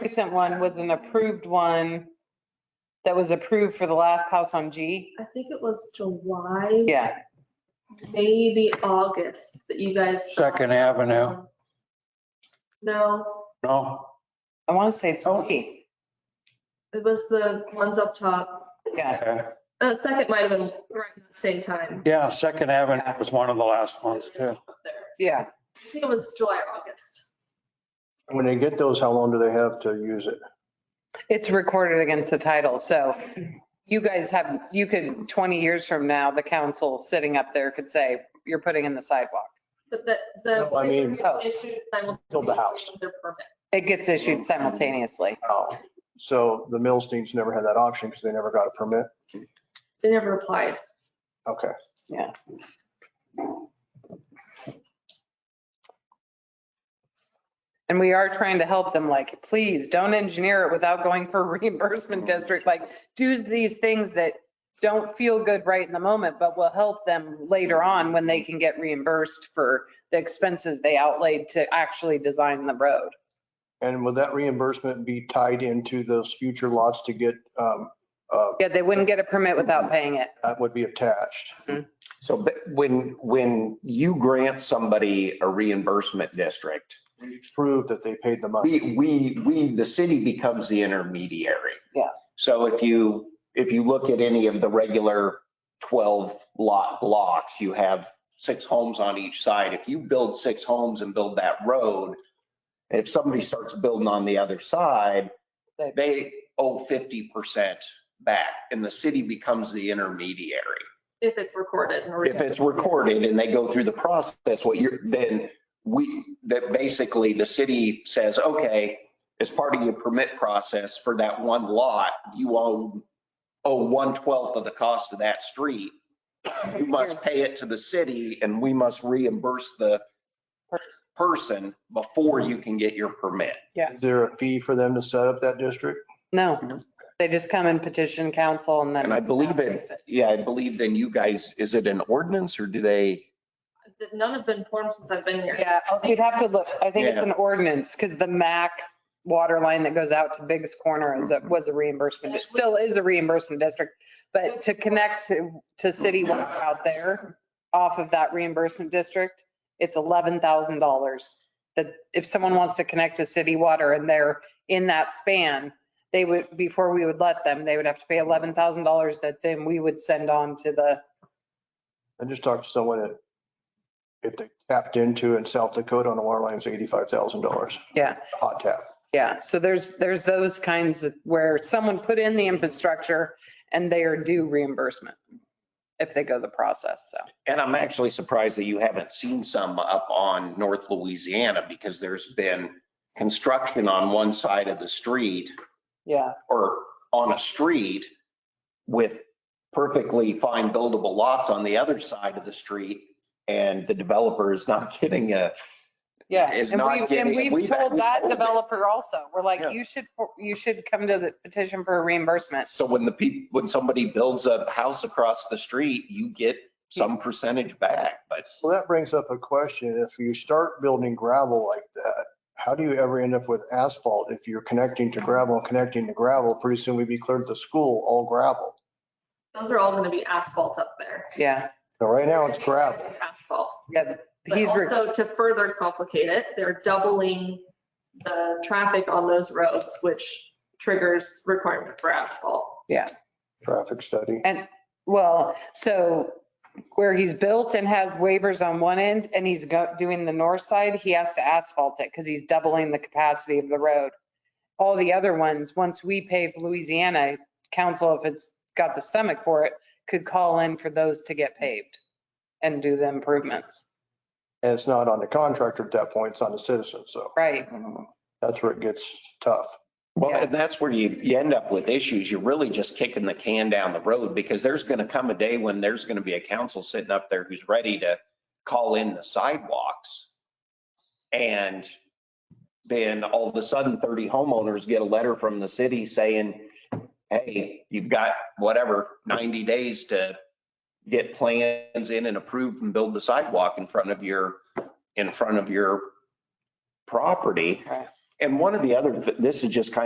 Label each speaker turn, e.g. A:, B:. A: recent one was an approved one that was approved for the last house on G.
B: I think it was July.
A: Yeah,
B: Maybe August that you guys. saw.
C: Second Avenue,
B: No,
C: no?
A: I want to say it's
C: Oh.
A: G.
B: it was the ones up top.
A: Yeah,
C: Okay.
B: Uh, second might have been right at the same time.
C: Yeah, Second Avenue was one of the last ones too.
B: Up there.
A: yeah.
B: I think it was July, or August.
D: When they get those, how long do they have to use it?
A: It's recorded against the title, so you guys have, you could, 20 years from now, the council sitting up there could say, you're putting in the sidewalk.
B: But the, the.
D: No, I mean-
A: Oh.
B: Issued simultaneously.
D: Build the house.
B: with Their permit.
A: It gets issued simultaneously.
D: Oh, So the Millsteins never had that option because they never got a permit?
B: They never applied.
D: Okay.
A: And we are trying to help them, like, please don't engineer it without going for reimbursement district, like, do these things that don't feel good right in the moment, but will help them later on when they can get reimbursed for the expenses they outlaid to actually design the road.
D: And would that reimbursement be tied into those future lots to get, um, uh,
A: Yeah, they wouldn't get a permit without paying it.
D: that would be attached?
E: So but when, when you grant somebody a reimbursement district,
D: Prove that they paid the money.
E: we, we, we, the city becomes the intermediary.
A: Yeah.
E: So if you, if you look at any of the regular 12 lot blocks, you have six homes on each side. If you build six homes and build that road, if somebody starts building on the other side, they owe 50% back and the city becomes the intermediary.
B: If it's recorded. and
E: if it's recorded and they go through the process, what you're, then we, that basically the city says, okay, as part of your permit process for that one lot, you owe, owe one twelfth of the cost of that street. You must pay it to the city and we must reimburse the person before you can get your permit.
D: Is there a fee for them to set up that district?
A: No, they just come and petition council and then.
E: And I believe it,
A: it's
E: yeah, I believe then you guys, is it an ordinance or do they?
B: None have been formed since I've been here.
A: Yeah, oh, you'd have to look. I think it's an ordinance because the MAC water line that goes out to Biggs Corner is, a- was a reimbursement. It still is a reimbursement district. But to connect to, to city water out there off of that reimbursement district, it's $11,000. That if someone wants to connect to city water and they're in that span, they would, before we would let them, they would have to pay $11,000 that then we would send on to the
D: I just talked to someone that if they tapped into in South Dakota on a water line, it's $85,000.
A: Yeah.
D: Hot tap.
A: Yeah, so there's, there's those kinds of where someone put in the infrastructure and they are due reimbursement if they go the process, so.
E: And I'm actually surprised that you haven't seen some up on North Louisiana because there's been construction on one side of the street
A: Yeah.
E: or on a street with perfectly fine buildable lots on the other side of the street. And the developer is not getting a,
A: Yeah,
E: It's
A: and
E: not
A: we, and
E: getting-
A: we've
E: we've-
A: told
E: we've
A: that
E: told it.
A: developer also, we're
E: Yeah.
A: like, you should, for- you should come to the petition for a reimbursement.
E: so when the people, when somebody builds a house across the street, you get some percentage back, but
D: So that brings up a question. If you start building gravel like that, how do you ever end up with asphalt if you're connecting to gravel and connecting to gravel? Pretty soon we'd be clear to the school, all gravel.
B: Those are all going to be asphalt up there.
A: Yeah,
D: Now, right now it's gravel.
B: Asphalt.
A: yeah,
B: But
A: he's, re-
B: also to further complicate it, they're doubling the traffic on those roads, which triggers requirement for asphalt.
D: Traffic study.
A: well, so where he's built and has waivers on one end and he's go- doing the north side, he has to asphalt it because he's doubling the capacity of the road. all the other ones, once we pave Louisiana, council, if it's got the stomach for it, could call in for those to get paved and do the improvements.
D: And it's not on the contractor at that point, it's on the citizen. So
A: Right,
D: that's where it gets tough.
E: Well,
A: Yeah.
E: and that's where you, you end up with issues. You're really just kicking the can down the road because there's going to come a day when there's going to be a council sitting up there who's ready to call in the sidewalks. And then all of a sudden 30 homeowners get a letter from the city saying, hey, you've got whatever, 90 days to get plans in and approved and build the sidewalk in front of your, in front of your property.
A: Right.
E: And one of the other, this is just kind